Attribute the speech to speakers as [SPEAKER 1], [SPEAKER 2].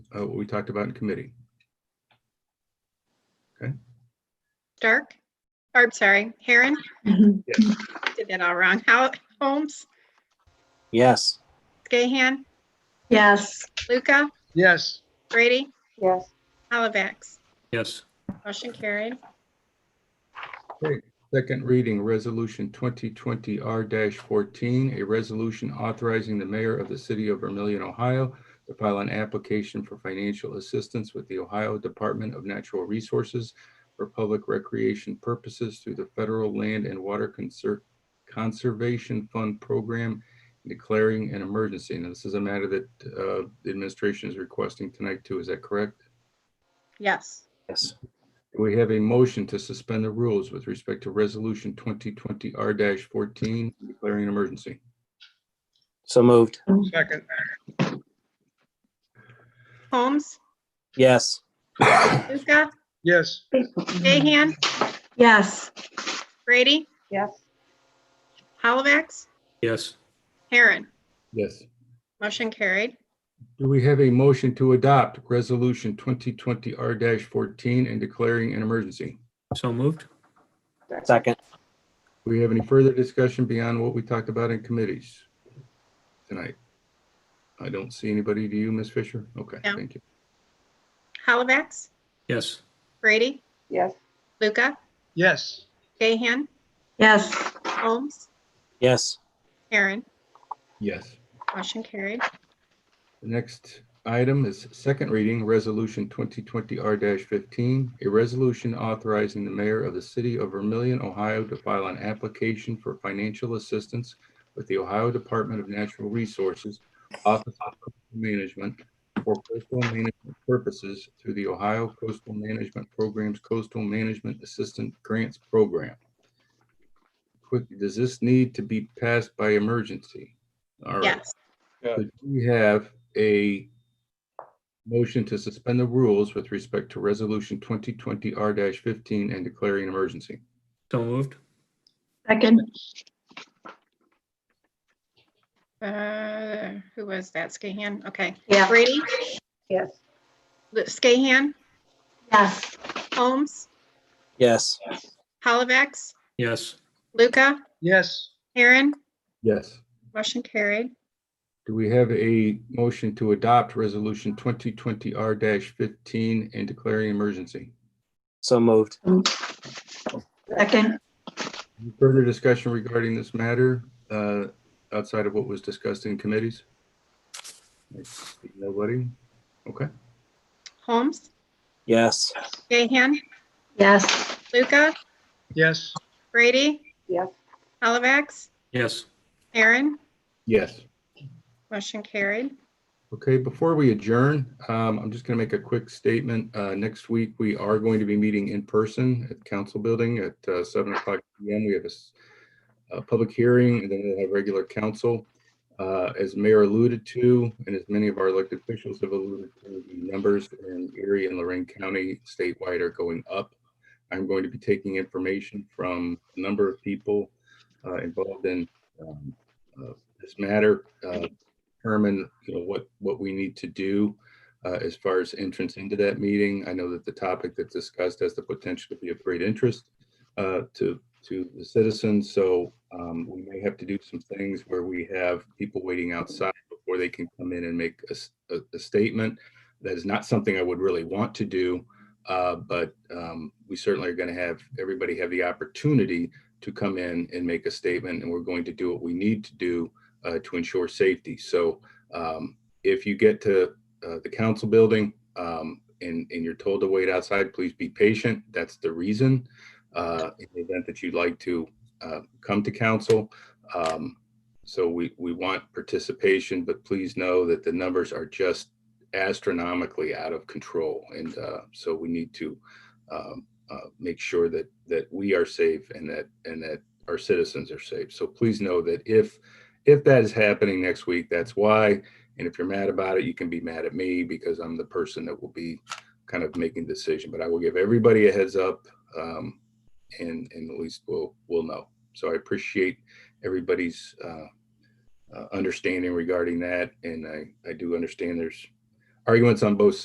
[SPEAKER 1] uh, what we talked about in committee.
[SPEAKER 2] Dark? Or I'm sorry, Heron?
[SPEAKER 3] Mhm.
[SPEAKER 2] Did that all wrong. How, Holmes,
[SPEAKER 4] Yes.
[SPEAKER 2] Gahan,
[SPEAKER 3] Yes,
[SPEAKER 2] Luca,
[SPEAKER 5] Yes.
[SPEAKER 2] Brady,
[SPEAKER 6] yes,
[SPEAKER 2] Hollivax.
[SPEAKER 7] yes,
[SPEAKER 2] Motion carried.
[SPEAKER 1] Second reading, Resolution 2020 R-14, a resolution authorizing the mayor of the city of Vermillion, Ohio to file an application for financial assistance with the Ohio Department of Natural Resources for public recreation purposes through the Federal Land and Water Conser- Conservation Fund Program, declaring an emergency. Now, this is a matter that uh, the administration is requesting tonight too. Is that correct?
[SPEAKER 2] Yes.
[SPEAKER 4] Yes.
[SPEAKER 1] We have a motion to suspend the rules with respect to Resolution 2020 R-14, declaring an emergency.
[SPEAKER 4] So moved.
[SPEAKER 5] Second.
[SPEAKER 2] Holmes,
[SPEAKER 4] Yes.
[SPEAKER 2] Luca,
[SPEAKER 5] Yes.
[SPEAKER 2] Gahan,
[SPEAKER 3] yes,
[SPEAKER 2] Brady,
[SPEAKER 6] yes,
[SPEAKER 2] Hollivax,
[SPEAKER 7] yes,
[SPEAKER 2] Heron.
[SPEAKER 1] Yes.
[SPEAKER 2] Motion carried.
[SPEAKER 1] Do we have a motion to adopt Resolution 2020 R-14 and declaring an emergency?
[SPEAKER 7] so moved,
[SPEAKER 4] Second.
[SPEAKER 1] Do we have any further discussion beyond what we talked about in committees tonight? I don't see anybody. Do you, Ms. Fisher? Okay,
[SPEAKER 2] No.
[SPEAKER 1] thank you.
[SPEAKER 2] Hollivax,
[SPEAKER 7] yes,
[SPEAKER 2] Brady,
[SPEAKER 6] yes,
[SPEAKER 2] Luca,
[SPEAKER 5] Yes.
[SPEAKER 2] Gahan,
[SPEAKER 3] yes,
[SPEAKER 2] Holmes,
[SPEAKER 4] Yes.
[SPEAKER 2] Heron.
[SPEAKER 1] Yes.
[SPEAKER 2] Motion carried.
[SPEAKER 1] The next item is second reading, Resolution 2020 R-15, a resolution authorizing the mayor of the city of Vermillion, Ohio to file an application for financial assistance with the Ohio Department of Natural Resources Office of Coastal Management for coastal management purposes through the Ohio Coastal Management Program's Coastal Management Assistant Grants Program. Quick, does this need to be passed by emergency? All right.
[SPEAKER 2] Yes.
[SPEAKER 1] So do We have a motion to suspend the rules with respect to Resolution 2020 R-15 and declaring an emergency.
[SPEAKER 7] so moved,
[SPEAKER 3] second,
[SPEAKER 2] Uh, who was that? Gahan? Okay.
[SPEAKER 3] yeah,
[SPEAKER 2] Brady,
[SPEAKER 6] yes,
[SPEAKER 2] Lu- Gahan,
[SPEAKER 3] yes,
[SPEAKER 2] Holmes,
[SPEAKER 4] Yes.
[SPEAKER 2] Hollivax,
[SPEAKER 7] yes,
[SPEAKER 2] Luca,
[SPEAKER 5] Yes.
[SPEAKER 2] Heron.
[SPEAKER 1] Yes.
[SPEAKER 2] Motion carried.
[SPEAKER 1] Do we have a motion to adopt Resolution 2020 R-15 and declaring an emergency?
[SPEAKER 4] So moved.
[SPEAKER 3] second,
[SPEAKER 1] Any Further discussion regarding this matter uh, outside of what was discussed in committees? I see Nobody? Okay.
[SPEAKER 2] Holmes,
[SPEAKER 4] Yes.
[SPEAKER 2] Gahan,
[SPEAKER 3] yes,
[SPEAKER 2] Luca,
[SPEAKER 5] Yes.
[SPEAKER 2] Brady,
[SPEAKER 6] yes,
[SPEAKER 2] Hollivax,
[SPEAKER 7] yes,
[SPEAKER 2] Aaron.
[SPEAKER 1] Yes.
[SPEAKER 2] Motion carried.
[SPEAKER 1] Okay, before we adjourn, um, I'm just going to make a quick statement. Uh, Next week, we are going to be meeting in person at Council Building at uh, 7 o'clock PM. We have a s- a public hearing, and then we'll have regular council. Uh, As Mayor alluded to, and as many of our elected officials have alluded to, the numbers in Erie and Lorraine County statewide are going up. I'm going to be taking information from a number of people uh, involved in um, uh, this matter, uh, determine, you know, what, what we need to do uh, as far as entrance into that meeting. I know that the topic that's discussed has the potential to be of great interest uh, to, to the citizens. So um, we may have to do some things where we have people waiting outside before they can come in and make a, s- a- a statement. That is not something I would really want to do, uh, but um, we certainly are going to have everybody have the opportunity to come in and make a statement, and we're going to do what we need to do uh, to ensure safety. So um, if you get to uh, the council building um, and, and you're told to wait outside, please be patient. That's the reason. Uh, in the event that you'd like to uh, come to council. Um, so we, we want participation, but please know that the numbers are just astronomically out of control. And uh, so we need to um, uh, make sure that, that we are safe and that, and that our citizens are safe. So please know that if if that is happening next week, that's why. And if you're mad about it, you can be mad at me because I'm the person that will be kind of making the decision. But I will give everybody a heads up, um, and and at least we'll we'll know. So I appreciate everybody's uh, uh, understanding regarding that, and I I do understand there's arguments on both